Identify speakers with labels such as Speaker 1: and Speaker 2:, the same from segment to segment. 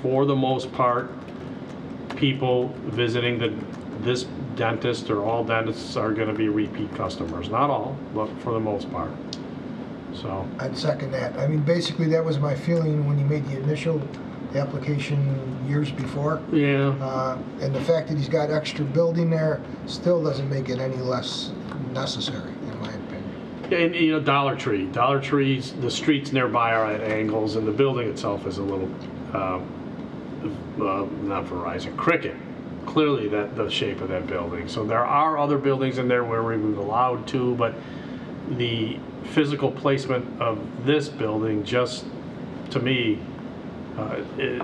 Speaker 1: for the most part, people visiting the, this dentist or all dentists are gonna be repeat customers. Not all, but for the most part. So,
Speaker 2: I'd second that. I mean, basically, that was my feeling when he made the initial application years before.
Speaker 1: yeah,
Speaker 2: Uh, And the fact that he's got extra building there still doesn't make it any less necessary, in my opinion.
Speaker 1: and, you know, Dollar Tree, Dollar Trees, the streets nearby are at angles and the building itself is a little, uh, uh, not Verizon, Cricket. Clearly that, the shape of that building. So there are other buildings in there where we were allowed to, but the physical placement of this building just, to me, uh, it-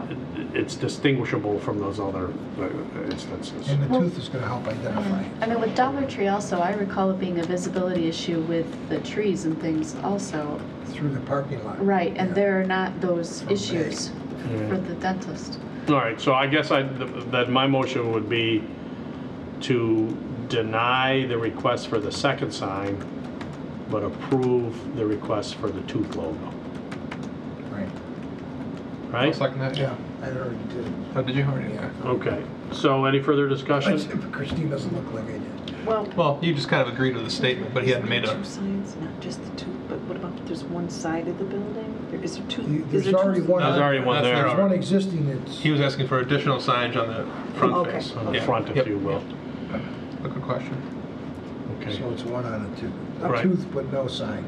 Speaker 1: it's distinguishable from those other uh, instances.
Speaker 2: And the tooth is going to help identify.
Speaker 3: I mean, with Dollar Tree also, I recall it being a visibility issue with the trees and things also.
Speaker 2: through the parking lot.
Speaker 3: Right, and
Speaker 2: Yeah.
Speaker 3: there are not those
Speaker 2: From
Speaker 3: issues
Speaker 1: Yeah.
Speaker 3: for the dentist.
Speaker 1: All right, so I guess I, that my motion would be to deny the request for the second sign, but approve the request for the tooth logo,
Speaker 4: Right.
Speaker 1: right?
Speaker 4: Second that,
Speaker 2: Yeah, I already did.
Speaker 4: Oh, did you? Already?
Speaker 2: Yeah.
Speaker 4: Okay.
Speaker 1: Okay, so any further discussion?
Speaker 2: But Christine doesn't look like I did.
Speaker 5: Well,
Speaker 4: Well, you just kind of agreed with the statement, but he hadn't made a.
Speaker 5: Two signs, not just the two, but what about, there's one side of the building? There- Is there two?
Speaker 2: You-
Speaker 5: is
Speaker 2: There's
Speaker 5: there two
Speaker 2: already
Speaker 5: s-
Speaker 2: one. uh,
Speaker 1: There's already one
Speaker 4: That's
Speaker 1: there.
Speaker 2: There's one existing that's,
Speaker 4: He was asking for additional signage on the front
Speaker 5: Okay.
Speaker 4: face.
Speaker 1: On the
Speaker 4: Yeah.
Speaker 1: front, if
Speaker 4: Yep.
Speaker 1: you will.
Speaker 4: A good question.
Speaker 1: Okay,
Speaker 2: so it's one on a tooth.
Speaker 1: Right.
Speaker 2: A tooth, but no sign.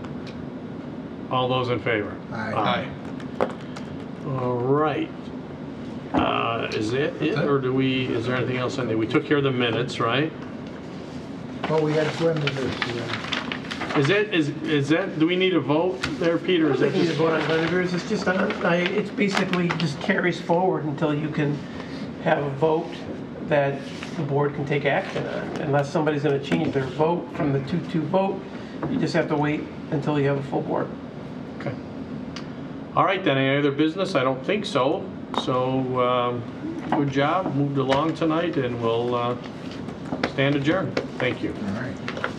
Speaker 1: all those in favor?
Speaker 2: Aye.
Speaker 1: Aye. All right. Uh, Is that it, or do we, is there anything else in there? We took care of the minutes, right?
Speaker 2: Well, we had Glenn to do it. so then-
Speaker 1: Is that, is, is that, do we need a vote there, Peter? Is
Speaker 6: I
Speaker 1: that
Speaker 6: think you
Speaker 1: just-
Speaker 6: just vote on Lender's, it's just, on- I- it's basically just carries forward until you can have a vote that the board can take action on. Unless somebody's gonna change their vote from the 2-2 vote, you just have to wait until you have a full board.
Speaker 1: Okay. All right, then, any other business? I don't think so. So, um, good job, moved along tonight, and we'll uh, stand adjourned. Thank you.
Speaker 2: All right.